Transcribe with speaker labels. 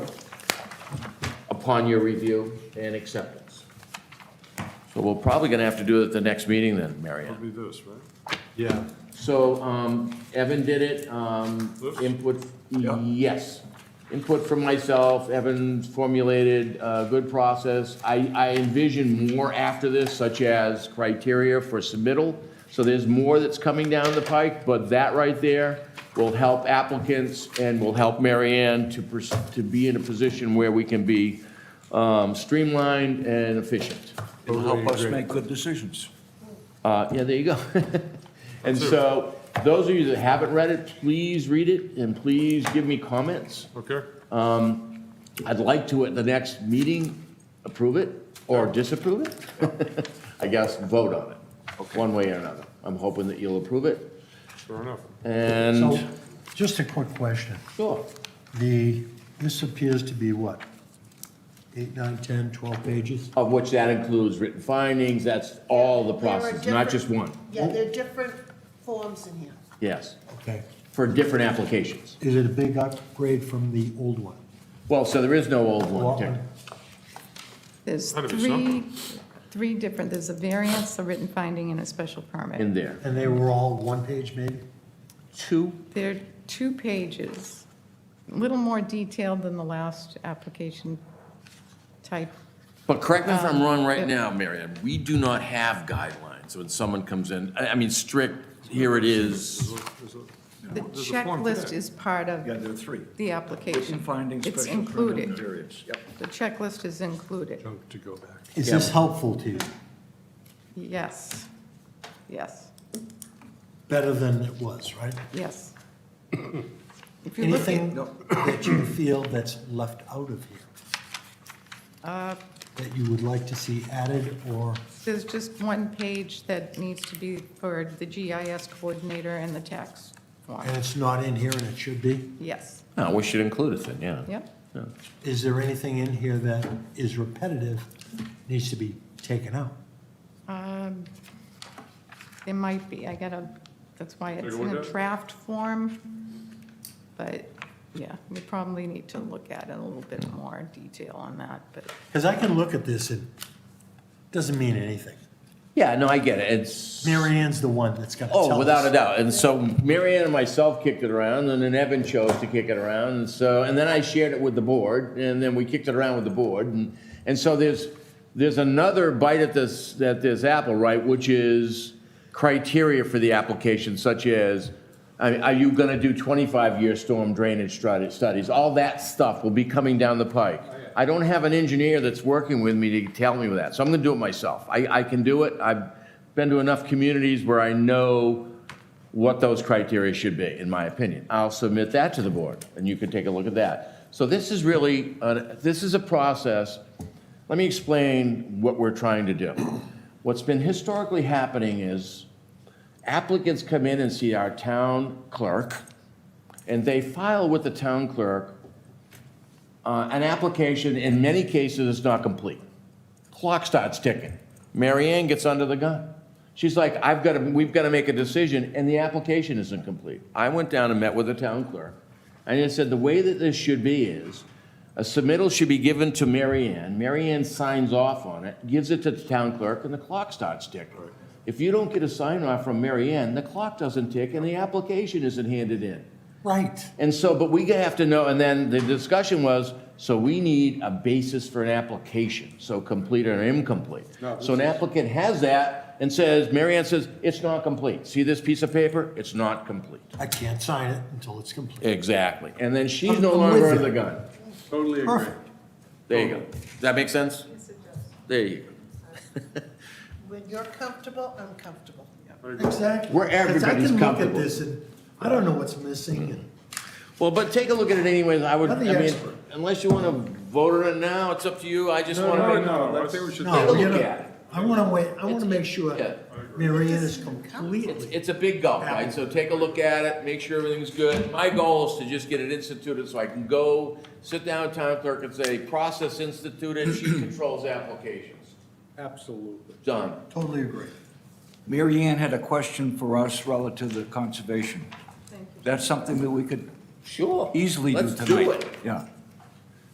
Speaker 1: upon your review and acceptance. So we're probably gonna have to do it at the next meeting then, Mary Ann.
Speaker 2: It'll be this, right? Yeah.
Speaker 1: So, um, Evan did it, um,
Speaker 2: Oops.
Speaker 1: input,
Speaker 2: Yeah.
Speaker 1: yes. Input from myself, Evan formulated a good process. I, I envision more after this, such as criteria for submittal. So there's more that's coming down the pike, but that right there will help applicants and will help Mary Ann to, pers- to be in a position where we can be, um, streamlined and efficient.
Speaker 3: It'll help us make good decisions.
Speaker 1: Uh, yeah, there you go. And so, those of you that haven't read it, please read it and please give me comments.
Speaker 2: Okay,
Speaker 1: I'd like to, at the next meeting, approve it or disapprove it. I guess vote on it, one way or another. I'm hoping that you'll approve it
Speaker 2: fair enough.
Speaker 4: So,
Speaker 1: and,
Speaker 4: just a quick question.
Speaker 1: sure.
Speaker 4: The, this appears to be what? Eight, nine, 10, 12 pages?
Speaker 1: Of which that includes written findings, that's all the
Speaker 5: There are
Speaker 1: process, not just one.
Speaker 5: different- Yeah, there are different forms in here.
Speaker 1: Yes,
Speaker 4: Okay.
Speaker 1: for different applications.
Speaker 4: Is it a big upgrade from the old one?
Speaker 1: Well, so there is no old one,
Speaker 4: Well,
Speaker 1: Dick.
Speaker 6: There's
Speaker 2: Gotta be
Speaker 6: three,
Speaker 2: something.
Speaker 6: three different, there's a variance, a written finding, and a special permit.
Speaker 1: in there.
Speaker 4: And they were all one page maybe?
Speaker 1: Two
Speaker 6: They're two pages, a little more detailed than the last application type.
Speaker 1: But correct me if I'm wrong right
Speaker 6: Um,
Speaker 1: now, Marianne. we do not have guidelines when someone comes in, I, I mean, strict, here it is.
Speaker 2: There's a-
Speaker 6: The
Speaker 2: There's a form for
Speaker 6: checklist
Speaker 2: that.
Speaker 6: is part
Speaker 3: Yeah,
Speaker 6: of
Speaker 3: there are three.
Speaker 6: the application.
Speaker 3: Written findings,
Speaker 6: It's
Speaker 3: special permit, and
Speaker 6: included.
Speaker 3: variance. Yep.
Speaker 6: The checklist is included.
Speaker 2: Junk to go back.
Speaker 4: Is this helpful to you?
Speaker 6: Yes, yes,
Speaker 4: Better than it was, right?
Speaker 6: yes. If you look
Speaker 4: Anything
Speaker 6: at,
Speaker 4: that you feel that's left out of here? That you would like to see added or,
Speaker 6: there's just one page that needs to be for the GIS coordinator and the tax form.
Speaker 4: and it's not in here and it should be?
Speaker 6: Yes,
Speaker 1: No, we should include it then, yeah.
Speaker 6: yep.
Speaker 4: Is there anything in here that is repetitive, needs to be taken out?
Speaker 6: Um, There might be, I gotta, that's why
Speaker 2: Take a
Speaker 6: it's
Speaker 2: look
Speaker 6: in
Speaker 2: at
Speaker 6: a
Speaker 2: it?
Speaker 6: draft form, but, yeah, we probably need to look at it a little bit more detail on that, but
Speaker 4: Because I can look at this and it doesn't mean anything.
Speaker 1: Yeah, no, I get it, it's,
Speaker 4: Mary Ann's the one that's gonna tell us.
Speaker 1: oh, without a doubt. And so Mary Ann and myself kicked it around, and then Evan chose to kick it around, and so, and then I shared it with the board, and then we kicked it around with the board, and, and so there's, there's another bite at this, at this apple, right, which is criteria for the application, such as, I mean, Are you going to do 25-year storm drainage strat- studies? All that stuff will be coming down the pike. I don't have an engineer that's working with me to tell me that, so I'm going to do it myself. I, I can do it. I've been to enough communities where I know what those criteria should be, in my opinion. I'll submit that to the board, and you can take a look at that. So this is really, uh, this is a process let me explain what we're trying to do. What's been historically happening is applicants come in and see our town clerk, and they file with the town clerk uh, an application, in many cases, it's not complete. Clock starts ticking. Mary Ann gets under the gun. She's like, I've got to, we've got to make a decision, and the application isn't complete. I went down and met with the town clerk, and I said, the way that this should be is, a submittal should be given to Mary Ann. Mary Ann signs off on it, gives it to the town clerk, and the clock starts ticking. If you don't get a sign off from Mary Ann, the clock doesn't tick, and the application isn't handed in.
Speaker 4: Right.
Speaker 1: And so, but we have to know, and then the discussion was, so we need a basis for an application, so complete or incomplete. So an applicant has that and says, Mary Ann says, it's not complete. See this piece of paper? It's not complete.
Speaker 4: I can't sign it until it's complete.
Speaker 1: Exactly. And then she's no
Speaker 4: I'm
Speaker 1: longer
Speaker 4: with
Speaker 1: under the
Speaker 4: you.
Speaker 1: gun.
Speaker 2: Totally agree.
Speaker 4: Perfect.
Speaker 1: There you go. Does that make sense? There you go.
Speaker 5: When you're comfortable, I'm comfortable.
Speaker 4: Exactly.
Speaker 1: Where
Speaker 4: 'Cause
Speaker 1: everybody's
Speaker 4: I can look
Speaker 1: comfortable.
Speaker 4: at this and I don't know what's missing and
Speaker 1: Well, but take a look at it anyway. I would, I
Speaker 4: I'm the
Speaker 1: mean,
Speaker 4: expert.
Speaker 1: unless you want to vote on it now, it's up to you. I just
Speaker 2: No,
Speaker 1: want to make.
Speaker 2: no, no, I think we should.
Speaker 4: No,
Speaker 1: Take a
Speaker 4: you
Speaker 1: look
Speaker 4: know,
Speaker 1: at it.
Speaker 4: I want to wait, I want to make sure
Speaker 1: yeah.
Speaker 4: Mary Ann is
Speaker 1: It's,
Speaker 4: completely,
Speaker 1: it's a big gulp, right? So take a look at it, make sure everything's good. My goal is to just get it instituted so I can go, sit down with town clerk and say, process instituted, she controls applications.
Speaker 2: Absolutely.
Speaker 1: Done.
Speaker 4: totally agree.
Speaker 3: Mary Ann had a question for us relative to conservation. That's something that we could
Speaker 1: Sure.
Speaker 3: easily do
Speaker 1: Let's
Speaker 3: tonight.
Speaker 1: do it.
Speaker 3: Yeah.